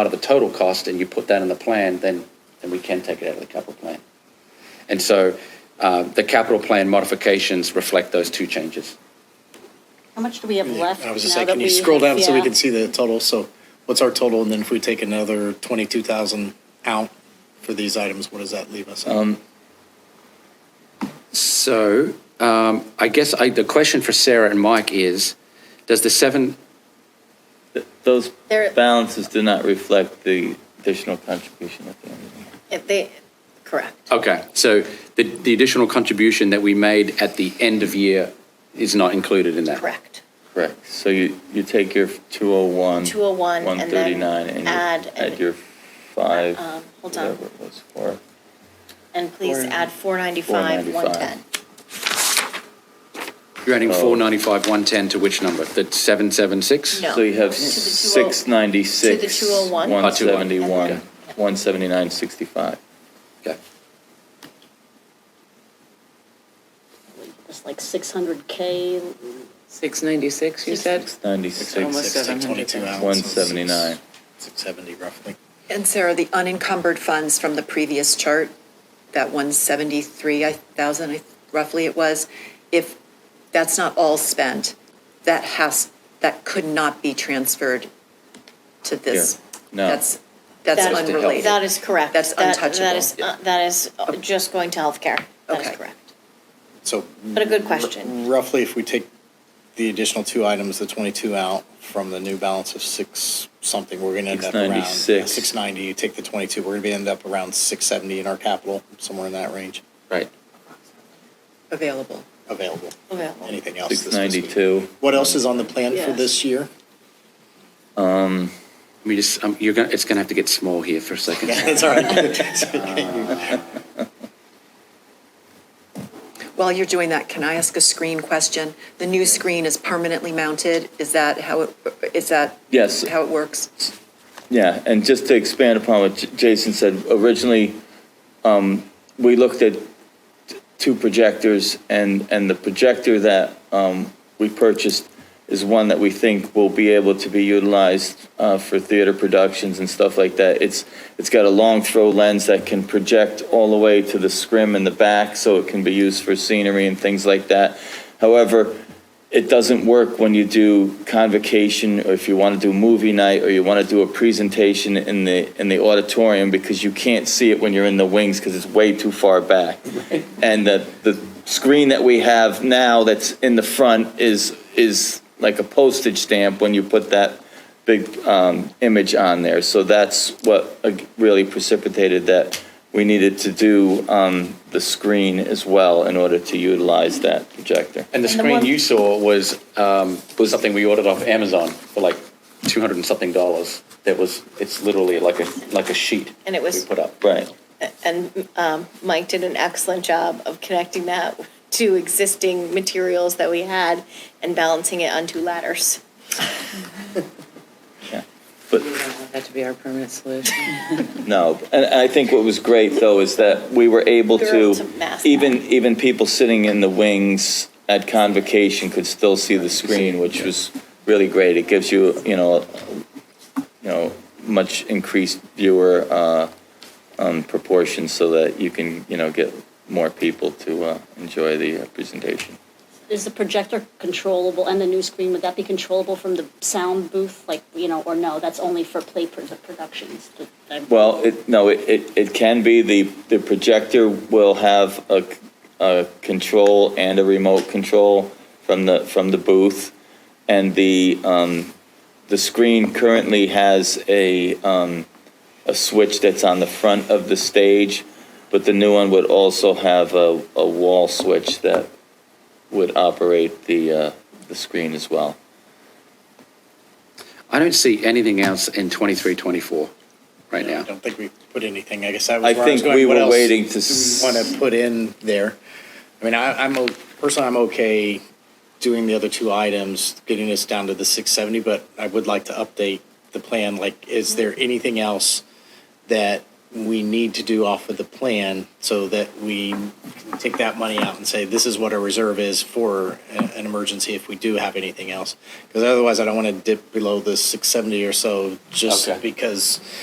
out of the total cost and you put that in the plan, then, then we can take it out of the capital plan. And so uh, the capital plan modifications reflect those two changes. How much do we have left? I was just now saying, that can you we scroll have- down so we yeah. can see the total? So what's our total? And then if we take another twenty-two thousand out for these items, what does that leave us? at? So um, I guess I, the question for Sarah and Mike is, does the seven, Th- Those There- balances do not reflect the additional contribution at the end of the year. If they, correct. okay, so the, the additional contribution that we made at the end of year is not included in that? Correct. Correct. So you, you take your 201. 201, and then 139, and you add an- add your five, um, hold on. whatever it was for. And please add 495, 110. You're adding Oh. 495, 110 to which number? The 776? No. So you have To the 20 696. to the 201. Oh, 201, 171, okay. 179, 65. Okay. It's like 600K. 696, you said? 696, Almost Six, take 22 out, so it's 179. Six seventy roughly. And Sarah, the unencumbered funds from the previous chart, that one seventy-three thousand roughly it was, if that's not all spent, that has, that could not be transferred to this. Yeah, no. That's, that's That- unrelated. That is correct. That's That- That is, untouchable. uh, that is uh, just going to healthcare. That is Okay. correct. So But a good question. roughly if we take the additional two items, the twenty-two out from the new balance of six something, we're gonna end up around. 696. Six ninety, you take the twenty-two, we're gonna be end up around six seventy in our capital, somewhere in that range Right. Available. available. Available. Anything else? this fiscal year? 692. What else is on the plan for Yeah. this year? Let me just, um, you're gonna, it's gonna have to get small here for a second. That's all right. While you're doing that, can I ask a screen question? The new screen is permanently mounted, is that how it, is that? Yes. How it works? Yeah, and just to expand upon what J- Jason said, originally, um, we looked at t- two projectors, and, and the projector that um, we purchased is one that we think will be able to be utilized uh, for theater productions and stuff like that. It's, it's got a long throw lens that can project all the way to the scrim in the back, so it can be used for scenery and things like that. However, it doesn't work when you do convocation or if you want to do movie night or you want to do a presentation in the in the auditorium because you can't see it when you're in the wings because it's way too far back. And the the screen that we have now that's in the front is is like a postage stamp when you put that big um, image on there. So that's what uh, really precipitated that we needed to do um, the screen as well in order to utilize that projector. And the And the screen one- you saw was, um, was something we ordered off Amazon for like 200 and something dollars. That was, it's literally like a, like a sheet. And it was- We put up. Right. And um, Mike did an excellent job of connecting that to existing materials that we had and balancing it on two ladders. Yeah, But, That to be our permanent solution. no, and I think what was great, though, is that we were able We were able to to, mask even, that. even people sitting in the wings at convocation could still see the screen, which was really great. It gives you, you know, you know, much increased viewer uh, um, proportions so that you can, you know, get more people to uh, enjoy the uh, presentation. Is the projector controllable and the new screen, would that be controllable from the sound booth? Like, you know, or no, that's only for play pro- productions? that- that- Well, it, no, it, it it can be, the, the projector will have a, c- a control and a remote control from the, from the booth. And the, um, the screen currently has a, um, a switch that's on the front of the stage, but the new one would also have a, a wall switch that would operate the, uh, the screen as well. I don't see anything else in 23, 24 right I now. don't think we put anything, I guess that I was where I was think going. we What were else Mm, waiting to do s- we want to put in there? I mean, I, I'm, o- personally, I'm okay doing the other two items, getting us down to the six seventy, but I would like to update the plan, like, is there anything else that we need to do off of the plan so that we can take that money out and say, this is what our reserve is for a- an emergency if we do have anything else. Because otherwise, I don't want to dip below the 670 or so just Okay. because